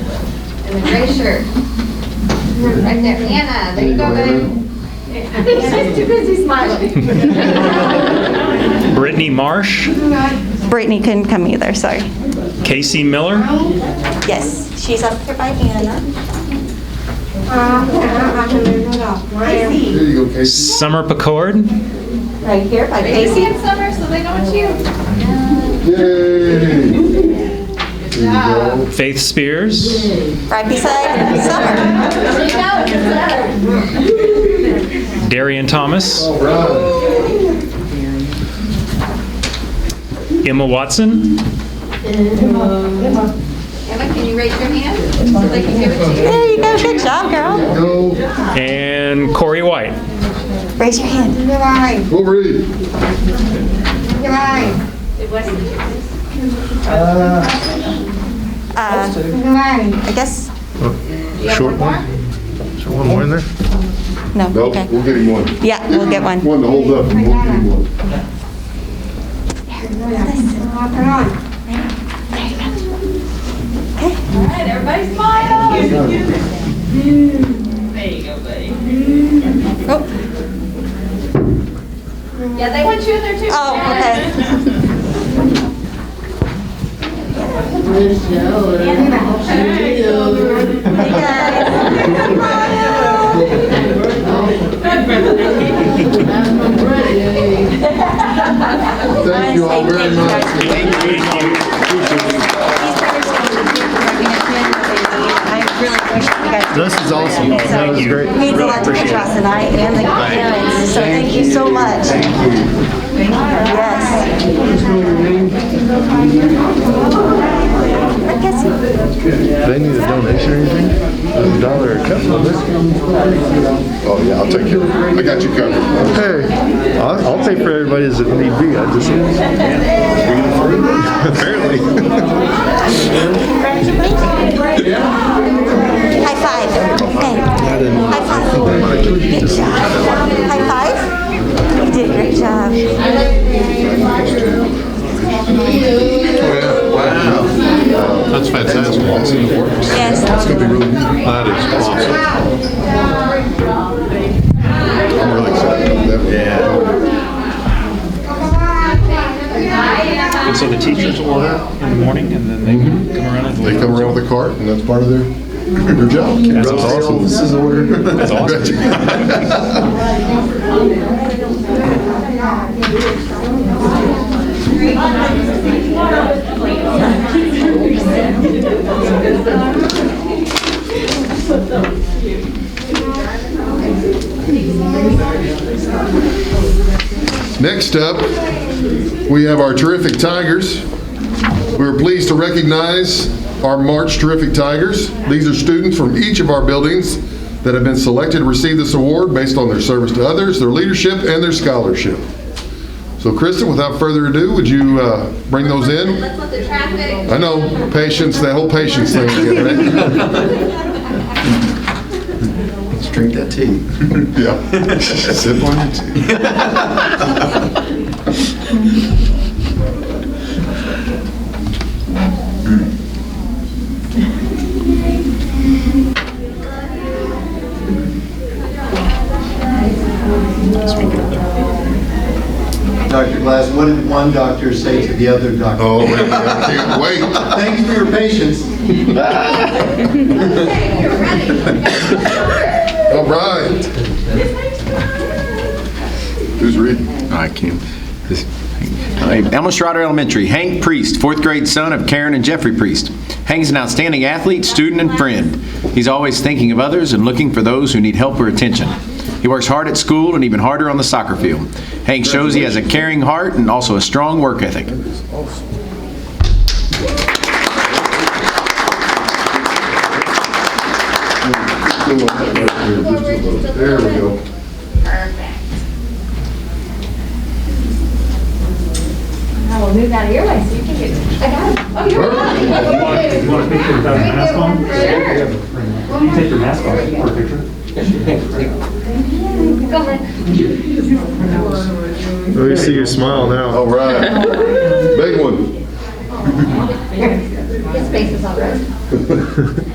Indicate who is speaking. Speaker 1: in the gray shirt. Right there, Anna, there you go, babe.
Speaker 2: I think she's too busy smiling.
Speaker 3: Brittany Marsh,
Speaker 4: Brittany couldn't come either, sorry.
Speaker 3: Casey Miller,
Speaker 4: Yes, she's up here by Anna.
Speaker 5: There you go, Casey.
Speaker 3: Summer Picard,
Speaker 4: Right here by
Speaker 1: They see
Speaker 4: Casey.
Speaker 1: in summer, so they know it's you.
Speaker 5: Yay! There you go.
Speaker 3: Faith Spears,
Speaker 4: Right beside Summer.
Speaker 1: They know it's summer.
Speaker 3: Darian Thomas,
Speaker 5: All right.
Speaker 3: Emma Watson,
Speaker 1: Emma, can you raise your hand so they can give it to you?
Speaker 4: There you go, good job, girl.
Speaker 5: Go,
Speaker 3: and Corey White.
Speaker 4: Raise your hand.
Speaker 5: go read.
Speaker 4: Uh, I guess,
Speaker 6: Short one? Is there one more in there?
Speaker 4: no,
Speaker 5: Nope,
Speaker 4: okay.
Speaker 5: we'll get him one.
Speaker 4: Yeah, we'll get one.
Speaker 5: One to hold up, and we'll get him one.
Speaker 1: Everybody smile.
Speaker 4: Oh,
Speaker 1: Yeah, they want you in there too.
Speaker 4: Oh, okay. Hey, guys.
Speaker 5: Thank you all very much.
Speaker 4: I really wish you guys.
Speaker 6: This is awesome.
Speaker 4: So,
Speaker 6: That was great.
Speaker 4: It means a lot to us tonight and the parents, so thank you so much.
Speaker 5: Thank you.
Speaker 4: Yes. I guess
Speaker 6: They need a donation or anything? A dollar a cup of
Speaker 5: Oh, yeah, I'll take care of it. I got you covered.
Speaker 6: Hey, I'll, I'll take for everybody's if need be. I just. Apparently.
Speaker 4: High five. Okay. High five. Good job. High five. You did a great job.
Speaker 6: That's fantastic.
Speaker 4: Yes.
Speaker 6: That is awesome.
Speaker 5: I'm really excited about that. Yeah.
Speaker 3: And so the teachers order in the morning and then they come around and
Speaker 5: They come around with a cart, and that's part of their, their job.
Speaker 3: That's awesome.
Speaker 5: This is order. That's
Speaker 3: awesome.
Speaker 5: Next up, we have our terrific Tigers. We are pleased to recognize our March Terrific Tigers. These are students from each of our buildings that have been selected to receive this award based on their service to others, their leadership, and their scholarship. So Kristen, without further ado, would you uh, bring those in?
Speaker 1: Let's let the traffic.
Speaker 5: I know, patience, that whole patience thing. Let's drink that tea. Yeah. Sip on your tea.
Speaker 7: Dr. Glass, what did one doctor say to the other doctor?
Speaker 5: Oh, wait, I can't wait.
Speaker 7: Thanks for your patience.
Speaker 1: Okay, you're ready.
Speaker 5: All right. Who's reading?
Speaker 8: Oh, I can. this- Elmer Schroeder Elementary, Hank Priest, fourth grade son of Karen and Jeffrey Priest. Hank's an outstanding athlete, student, and friend. He's always thinking of others and looking for those who need help or attention. He works hard at school and even harder on the soccer field. Hank shows he has a caring heart and also a strong work ethic.
Speaker 5: There we go.
Speaker 1: Perfect. I will move out of your way so you can get. I got it. Oh, you're right.
Speaker 9: You want a picture without a mask on?
Speaker 1: Sure.
Speaker 9: Can you take your mask off for a picture?
Speaker 1: Go ahead.
Speaker 6: We see your smile now.
Speaker 5: All right. Big one.
Speaker 1: His face is all right.